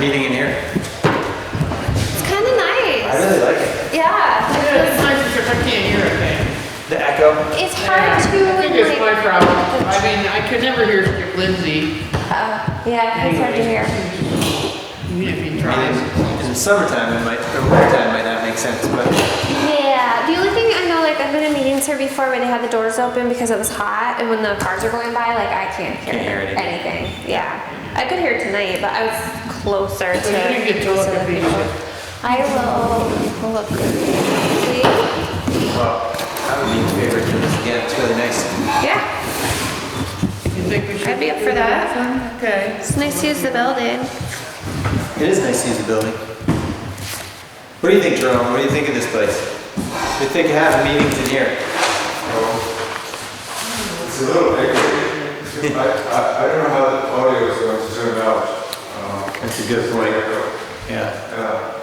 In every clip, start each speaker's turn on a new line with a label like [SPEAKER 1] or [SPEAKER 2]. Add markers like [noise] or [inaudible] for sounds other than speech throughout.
[SPEAKER 1] meeting in here?
[SPEAKER 2] It's kind of
[SPEAKER 1] I
[SPEAKER 2] nice.
[SPEAKER 1] really like it.
[SPEAKER 2] Yeah.
[SPEAKER 3] Yeah, it's nice because I can't hear a thing.
[SPEAKER 1] The echo.
[SPEAKER 2] It's hard to
[SPEAKER 3] I think it's my
[SPEAKER 2] like.
[SPEAKER 3] problem. I mean, I could never hear Skip Lindsey,
[SPEAKER 2] Uh, yeah, it's hard to hear.
[SPEAKER 3] even if he
[SPEAKER 1] I
[SPEAKER 3] tries.
[SPEAKER 1] mean, in the summertime, it might, or wintertime might not make sense, but
[SPEAKER 2] Yeah. The only thing I know, like, I've been in meetings here before where they had the doors open because it was hot, and when the cars are going by, like, I can't hear,
[SPEAKER 1] Can't hear anything.
[SPEAKER 2] anything. Yeah. I could hear tonight, but I was closer to.
[SPEAKER 3] So you didn't get to look at these.
[SPEAKER 2] I will look. See?
[SPEAKER 1] well, I would be in favor of doing this again. It's really nice.
[SPEAKER 2] Yeah.
[SPEAKER 3] You think we should?
[SPEAKER 2] I'd be up for that.
[SPEAKER 3] Okay.
[SPEAKER 2] It's nice to use the building.
[SPEAKER 1] It is nice to use the building. What do you think, Jerome? What do you think of this place? We think of having meetings in here.
[SPEAKER 4] It's a little echoey. I, I, I don't know how the audio is going to turn out. Um,
[SPEAKER 1] That's a good
[SPEAKER 4] it's like echo.
[SPEAKER 1] Yeah.
[SPEAKER 4] Yeah.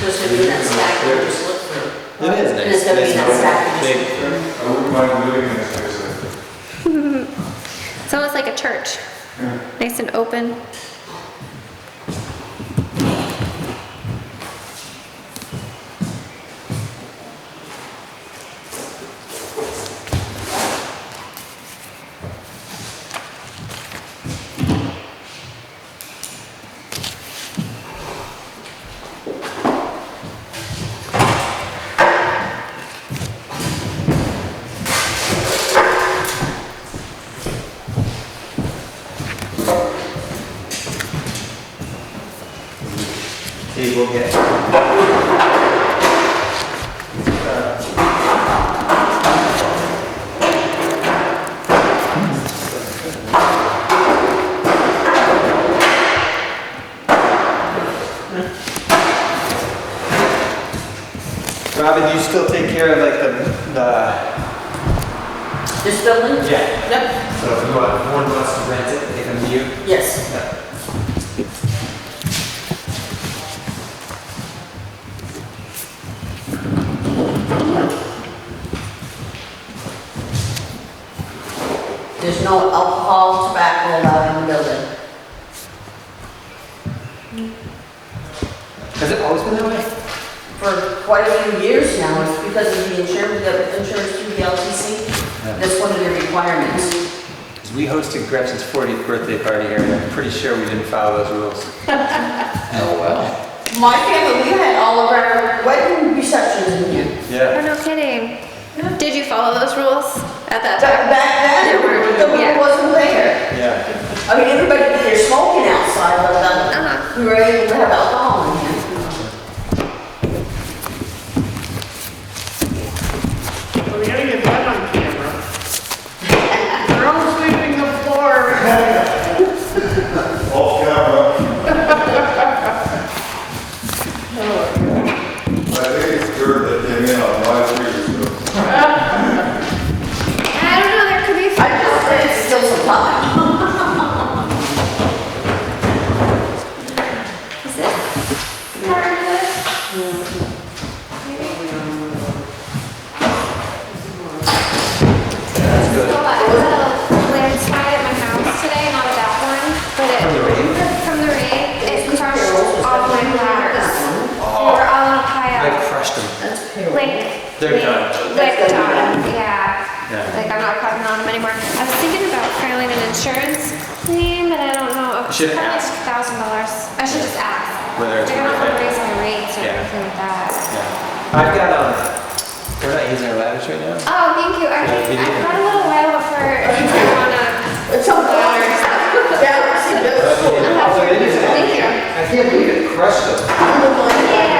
[SPEAKER 5] Just to be that stack, you just look through.
[SPEAKER 1] It is nice.
[SPEAKER 5] It's gonna be
[SPEAKER 1] Nice
[SPEAKER 5] that
[SPEAKER 1] open,
[SPEAKER 5] stack. you
[SPEAKER 1] big-
[SPEAKER 5] just look through.
[SPEAKER 4] I wouldn't mind living in this place. I think.
[SPEAKER 2] It's almost like a church. Nice and open.
[SPEAKER 1] He will get. Robin, do you still take care of like the, the?
[SPEAKER 5] This building?
[SPEAKER 1] Yeah.
[SPEAKER 5] Yep.
[SPEAKER 1] So if you want, one wants to rent it, they come to you?
[SPEAKER 5] Yes. There's no alcohol, tobacco allowed in the building.
[SPEAKER 1] Has it always been that way?
[SPEAKER 5] for quite a few years now, it's because of the insurance, the insurance through the LTC. That's one of their requirements.
[SPEAKER 1] Because we hosted Gretchen's 40th birthday party here, and I'm pretty sure we didn't follow those rules. Oh, well.
[SPEAKER 5] My family, we had all of our wedding receptions in here.
[SPEAKER 2] Oh,
[SPEAKER 1] Yeah.
[SPEAKER 2] no kidding. Did you follow those rules at that
[SPEAKER 5] Back
[SPEAKER 2] time?
[SPEAKER 5] back
[SPEAKER 2] There
[SPEAKER 5] then,
[SPEAKER 2] were-
[SPEAKER 5] the
[SPEAKER 2] yeah.
[SPEAKER 5] room wasn't there.
[SPEAKER 1] Yeah.
[SPEAKER 5] I mean, everybody did their smoking outside, but
[SPEAKER 2] Uh-huh.
[SPEAKER 5] then we were able to have alcohol in here.
[SPEAKER 3] We're gonna get that on camera. [laughs] They're all sweeping the floor.
[SPEAKER 4] Off camera. I think it's good that they made on live stream. so
[SPEAKER 2] I don't know, there could be.
[SPEAKER 5] I just think it's still some time.
[SPEAKER 2] Is this part of this?
[SPEAKER 1] That's
[SPEAKER 2] So
[SPEAKER 1] good.
[SPEAKER 2] I was at a landslide at my house today, not a bad one, but it.
[SPEAKER 1] From the rain?
[SPEAKER 2] From the rain, it crushed all my ladders. They were all on a
[SPEAKER 1] Like
[SPEAKER 2] pile,
[SPEAKER 1] crushed them.
[SPEAKER 5] That's
[SPEAKER 2] like.
[SPEAKER 1] They're
[SPEAKER 2] like-
[SPEAKER 1] done.
[SPEAKER 2] Like
[SPEAKER 5] That's done.
[SPEAKER 2] done, yeah.
[SPEAKER 1] Yeah.
[SPEAKER 2] Like I'm not cutting on them anymore. I was thinking about filing an insurance claim, but I don't know.
[SPEAKER 1] Should
[SPEAKER 2] Probably
[SPEAKER 1] ask.
[SPEAKER 2] Thousand dollars. I should just ask.
[SPEAKER 1] Whether it's
[SPEAKER 2] Like, I don't
[SPEAKER 1] worth
[SPEAKER 2] wanna
[SPEAKER 1] it.
[SPEAKER 2] raise my rates or
[SPEAKER 1] Yeah.
[SPEAKER 2] anything like that.
[SPEAKER 1] Yeah. I've got, um, we're not using our ladders right
[SPEAKER 2] [laughs]
[SPEAKER 1] now.
[SPEAKER 2] Oh, thank you. I think
[SPEAKER 1] Yeah, we
[SPEAKER 2] I
[SPEAKER 1] did.
[SPEAKER 2] got a little while for
[SPEAKER 1] [laughs]
[SPEAKER 2] if you wanna.
[SPEAKER 5] It's something. Yeah, it's a good.
[SPEAKER 1] Oh, it is.
[SPEAKER 2] Thank you.
[SPEAKER 1] I can't believe it crushed them.
[SPEAKER 5] I'm the one.
[SPEAKER 2] Yeah.